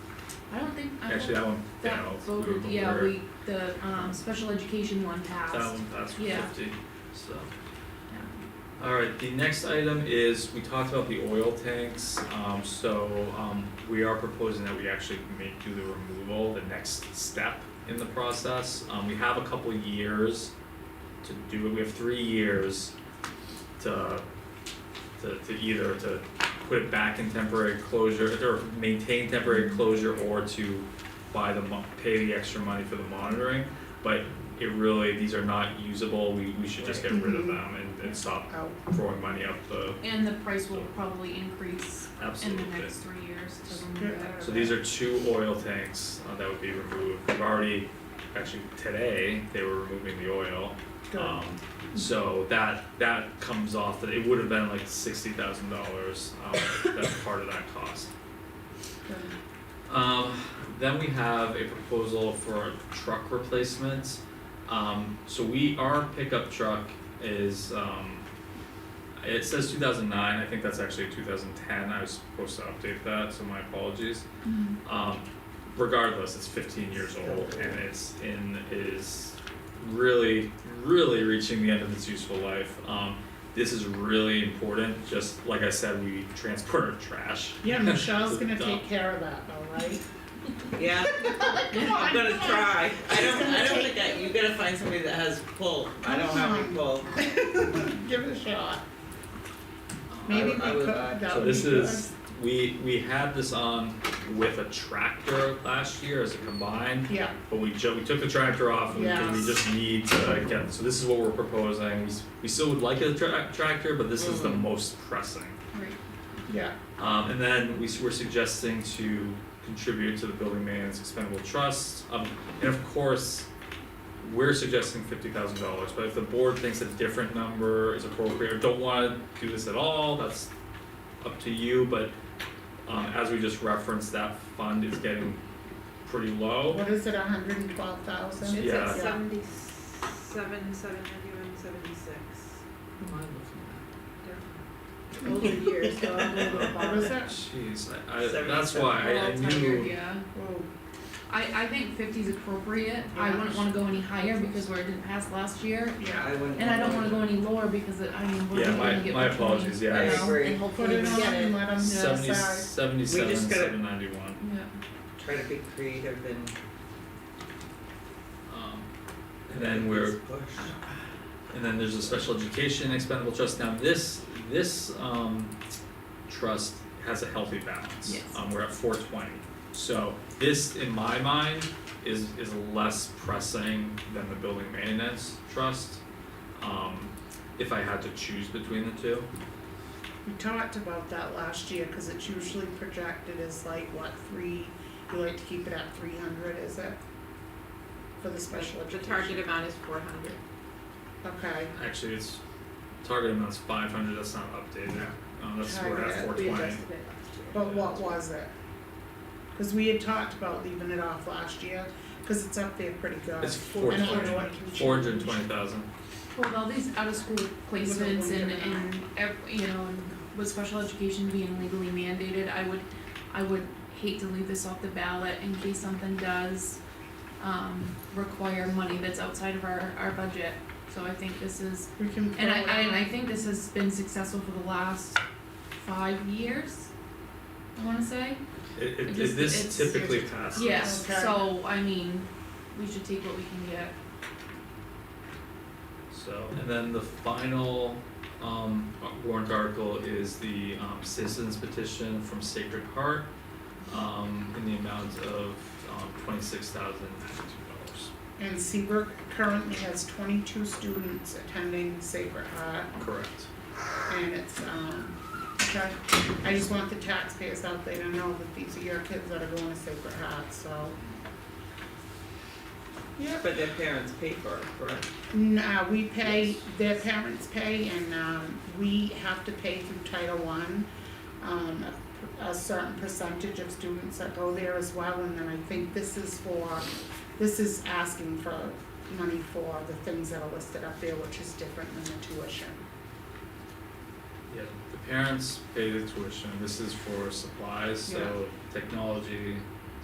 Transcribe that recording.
something? I don't Actually, know. that one, That down, we voted, were- yeah, we, the, um, special education one passed. That one passed with Yeah. fifty, so. Yeah. Alright, the next item is, we talked about the oil tanks, um, so, um, we are proposing that we actually make do the removal, the next step in the process. Um, we have a couple years to do it, we have three years to, to, to either to put it back in temporary closure, or maintain temporary closure, or to buy the mon- pay the extra money for the monitoring. But it really, these are not usable, we, we should just get rid of them and, and stop Out. throwing money up the, And the price will probably increase in absolutely. the next three years to remove that. So these are two oil tanks uh, that would be removed, we've already, actually today, they were removing the oil. Good. Um, so that, that comes off, that it would have been like sixty thousand dollars, um, that's part of that cost. Um, then we have a proposal for truck replacements. Um, so we, our pickup truck is, um, it says two thousand nine, I think that's actually two thousand ten, I was supposed to update that, so my apologies. Mhm. Mm-hmm. Um, regardless, it's fifteen years old and it's in, is really, really reaching the end of its useful life. Um, this is really important, just like I said, we transport our trash. Yeah, Michelle's gonna Dump. take care of that, all right? Yeah, I'm gonna try. I don't, I don't think that, you gotta find somebody that has pull. I don't have any pull. Give it a shot. Maybe we I could, would- that So would be this good. is, we, we had this on with a tractor last year as a combined, Yeah, but we ju- we took the tractor off and we- we Yes. just need to get, so this is what we're proposing. We s- We still would like a tra- tractor, but this is the Mhm. Mm-hmm. most pressing. Right. yeah, Um, and then we s- we're suggesting to contribute to the building maintenance expendable trust, um, and of course, we're suggesting fifty thousand dollars, but if the board thinks a different number is appropriate, or don't wanna do this at all, that's up to you, but um, as we just referenced, that fund is getting pretty low. what is it, a hundred and twelve thousand? It's Yeah. It's at seventy-seven, seven ninety-one, seventy-six. Older years, so I'm a little bit Oh, What was bothered. that? Jeez, I, I, that's why I, We're all I knew. tired, yeah. Oh, I, I think fifty's appropriate, I wouldn't wanna go any higher because where it didn't pass last year, yeah, I wouldn't. and I don't wanna go any lower because it, I mean, we're Yeah, not my- gonna get my what we need, apologies, yeah, I you know, agree. and put hopefully we it get on it. and let them Seventy, decide. seventy-seven, just gotta- seven ninety-one. Yeah. Try to be creative and. Um, and then we're And then there's a special education expendable trust. Now this, this um trust has a healthy balance. Yes. Um, we're at four twenty. So this, in my mind, is is less pressing than the building maintenance trust. Um, if I had to choose between the two. We talked about that last year, cause it's usually projected as like, what, three, you like to keep it at three hundred, is it? For the special The education. target amount is four hundred. Okay, Actually, it's target amount's five hundred, that's not updated. Um, that's, we're at Target, four twenty. it last year. but what was it? Cause we had talked about leaving it off last year, cause it's up there pretty good. It's four I don't know twenty, what can change. four hundred and twenty thousand. Well, with all these out of school placements and and ev- you know, and with special education being legally mandated, I would I would hate to leave this off the ballot in case something does um require money that's outside of our our budget. So I think this is We can. and I throw it and I on. think this has been successful for the last five years, I wanna say. It It it just- this it's- typically passes. Yes, Okay. so I mean, we should take what we can get. So, and then the final um warrant article is the um citizens petition from Sacred Heart um in the amount of um twenty six thousand ninety two And Seabrook currently has twenty-two students attending Sacred Heart, dollars. Correct. and it's, um, okay. I just want the taxpayers out there to know that these are your kids that are going to Sacred Heart, so. Yeah, but their parents pay for it, correct? No, uh, we pay, their parents pay, and, um, we have to pay through Title One, um, a, a certain percentage of students that go there as well, and then I think this is for, this is asking for money for the things that are listed up there, which is different than the tuition. Yeah, the parents pay the tuition, this is for supplies, so technology,